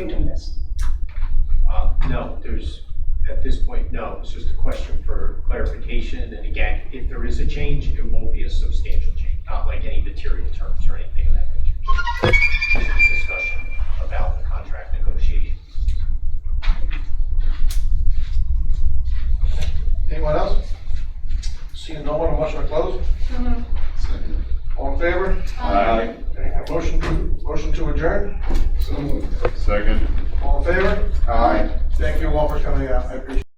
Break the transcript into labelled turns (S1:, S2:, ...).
S1: Uh, No, there's, at this point, no. It's just a question for clarification. And again, if there is a change, it won't be a substantial change, not like any material terms or anything of that nature. Just a discussion about the contract negotiations.
S2: Anyone else? Seeing no one, a motion to close?
S3: So moved.
S4: Second.
S2: All in favor?
S4: Aye.
S2: Okay, a Motion to, motion to adjourn?
S4: Second.
S2: All in favor?
S4: Aye.
S2: Thank you all for coming out. I appreciate it.